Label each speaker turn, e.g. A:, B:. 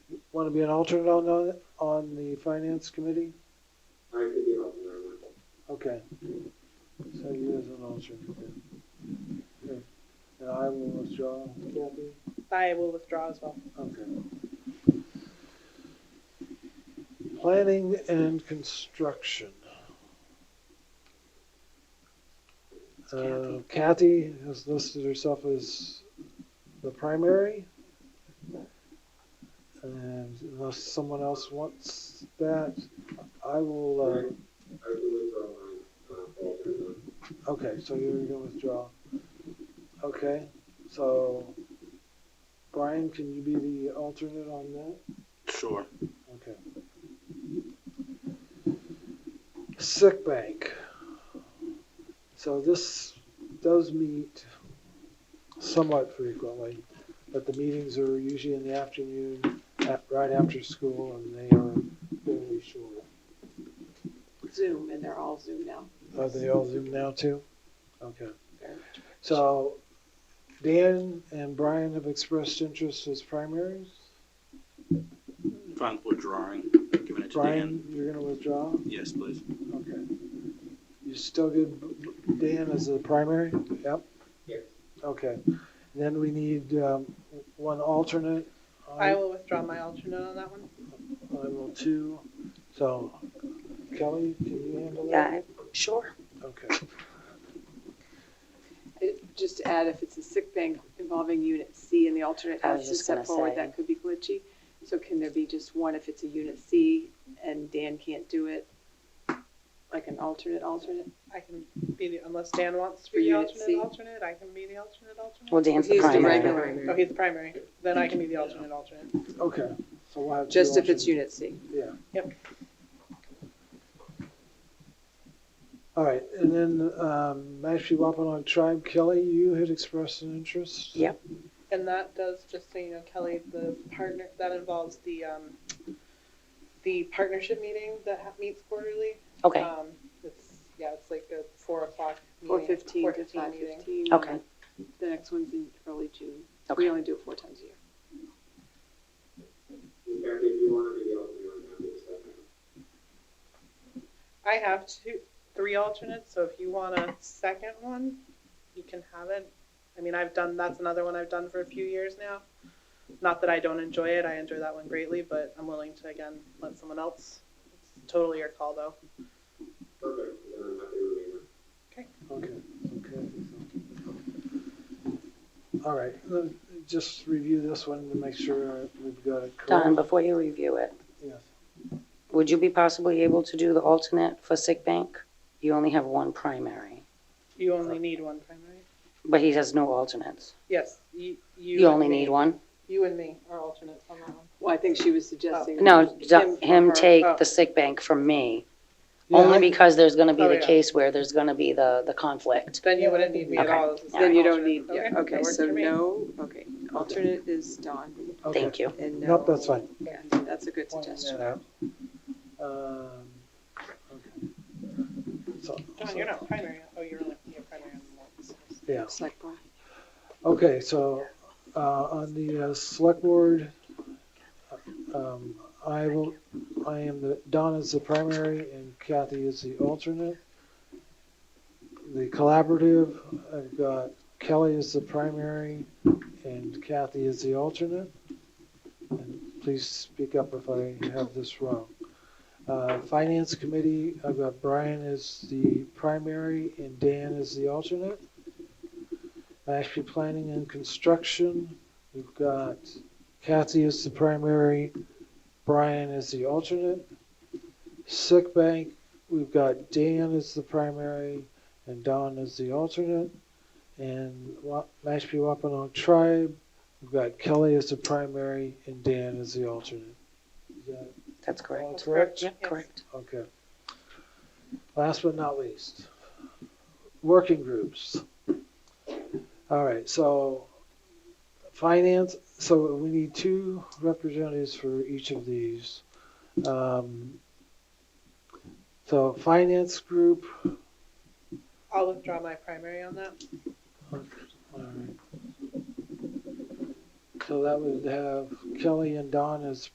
A: Want to be an alternate on, the- on the finance committee?
B: I could be helping her with
A: Okay. So you as an alternate then. Okay. And I will withdraw, Kathy?
C: I will withdraw as well.
A: Okay. Planning and construction. Uh, Kathy has listed herself as the primary. And unless someone else wants that, I will,
B: Right. I could withdraw my, uh, alternate.
A: uh, okay, so you're gonna withdraw. Okay, so Brian, can you be the alternate on that?
D: Sure.
A: Okay. Sick bank. So this does meet somewhat frequently, but the meetings are usually in the afternoon, at, right after school, and they are fairly short.
E: Zoom, and they're all Zoom now.
A: Are they all Zoom now too? Okay.
E: They're-
A: So Dan and Brian have expressed interest as primaries.
D: Fine, withdrawing. Giving it to
A: Brian,
D: Dan.
A: you're gonna withdraw?
D: Yes, please.
A: Okay. You still good, Dan, as the primary? Yep.
B: Yeah.
A: Okay. Then we need um, one alternate.
C: I will withdraw my alternate on that one.
A: I will too. So Kelly, can you handle that?
F: Yeah, sure.
A: Okay.
E: it- Just to add, if it's a sick bank involving unit C and the alternate
F: I was
E: has to
F: just
E: step
F: gonna
E: forward,
F: say.
E: that could be glitchy. So can there be just one if it's a unit C and Dan can't do it? Like an alternate, alternate?
C: I can be the, unless Dan wants to
E: For
C: be the
E: unit C.
C: alternate, alternate, I can be the alternate,
F: Well,
C: alternate.
F: Dan's the
E: He's the
F: primary.
E: regular.
C: Oh, he's the primary, then I can be the alternate, alternate.
A: Okay. So we'll have. two
E: Just if it's
A: alternates.
E: unit C.
A: Yeah.
C: Yep.
A: All right, and then um, Mashpee Wampanoag Tribe, Kelly, you had expressed an interest.
F: Yep.
C: And that does, just so you know, Kelly, the partner, that involves the, um, the partnership meeting that ha- meets quarterly.
F: Okay,
C: Um, it's, yeah, it's like a four o'clock meeting.
E: Four fifteen to
C: 4:15
E: five
C: meeting.
E: fifteen.
F: Okay.
E: The next one's in early June.
F: okay.
E: We only do it four times a year.
B: In fact, if you wanna be the alternate, I'm happy to step in.
C: I have two, three alternates, so if you want a second one, you can have it. I mean, I've done, that's another one I've done for a few years now. Not that I don't enjoy it, I enjoy that one greatly, but I'm willing to, again, let someone else. It's Totally your call, though.
B: Perfect, then I'm happy to remain.
A: Okay, okay. All right, let- just review this one to make sure we've got it
F: Don,
A: correct.
F: before you review it,
A: Yes.
F: would you be possibly able to do the alternate for sick bank? You only have one primary,
C: You only need one primary.
F: but he has no alternates.
C: Yes, you.
F: You only
C: and me.
F: need one?
C: You and me are alternates on that one.
E: Well, I think she was suggesting.
F: No,
E: him
F: d-
E: or
F: him
E: her.
F: take
C: oh.
F: the sick bank from me,
A: Yeah,
F: only
A: I-
F: because there's gonna be
C: Oh,
F: the
C: yeah.
F: case where there's gonna be the, the conflict.
C: Then you wouldn't need me at
F: Okay.
C: all. as a
E: Then you don't need,
C: alternate.
E: yeah,
C: that
E: okay,
C: works
E: so
C: for me.
E: no, okay. Alternate is Don
A: okay.
F: Thank you.
E: and no.
A: Nope, that's fine.
E: Yeah, that's a good
A: Pointing
E: suggestion.
A: that out. Um, okay. So-
C: John, you're not primary. Oh, you're only, you're primary on the ones.
A: Yeah,
E: It's like, Brian.
A: okay, so uh, on the uh, select board, um, I will, I am the, Don is the primary and Kathy is the alternate. The collaborative, I've got Kelly is the primary and Kathy is the alternate. And Please speak up if I have this wrong. Uh, Finance committee, I've got Brian as the primary and Dan is the alternate. Mashpee Planning and Construction, we've got Kathy as the primary, Brian as the alternate. Sick Bank, we've got Dan as the primary and Don as the alternate. And Wa- Mashpee Wampanoag Tribe, we've got Kelly as the primary and Dan as the alternate. Is that
F: That's
A: all
F: correct.
A: correct?
F: Yep, correct.
A: Okay. Last but not least, working groups. All right, so finance, so we need two representatives for each of these. Um, So finance group,
C: I'll withdraw my primary on that.
A: all right. So that would have Kelly and Don as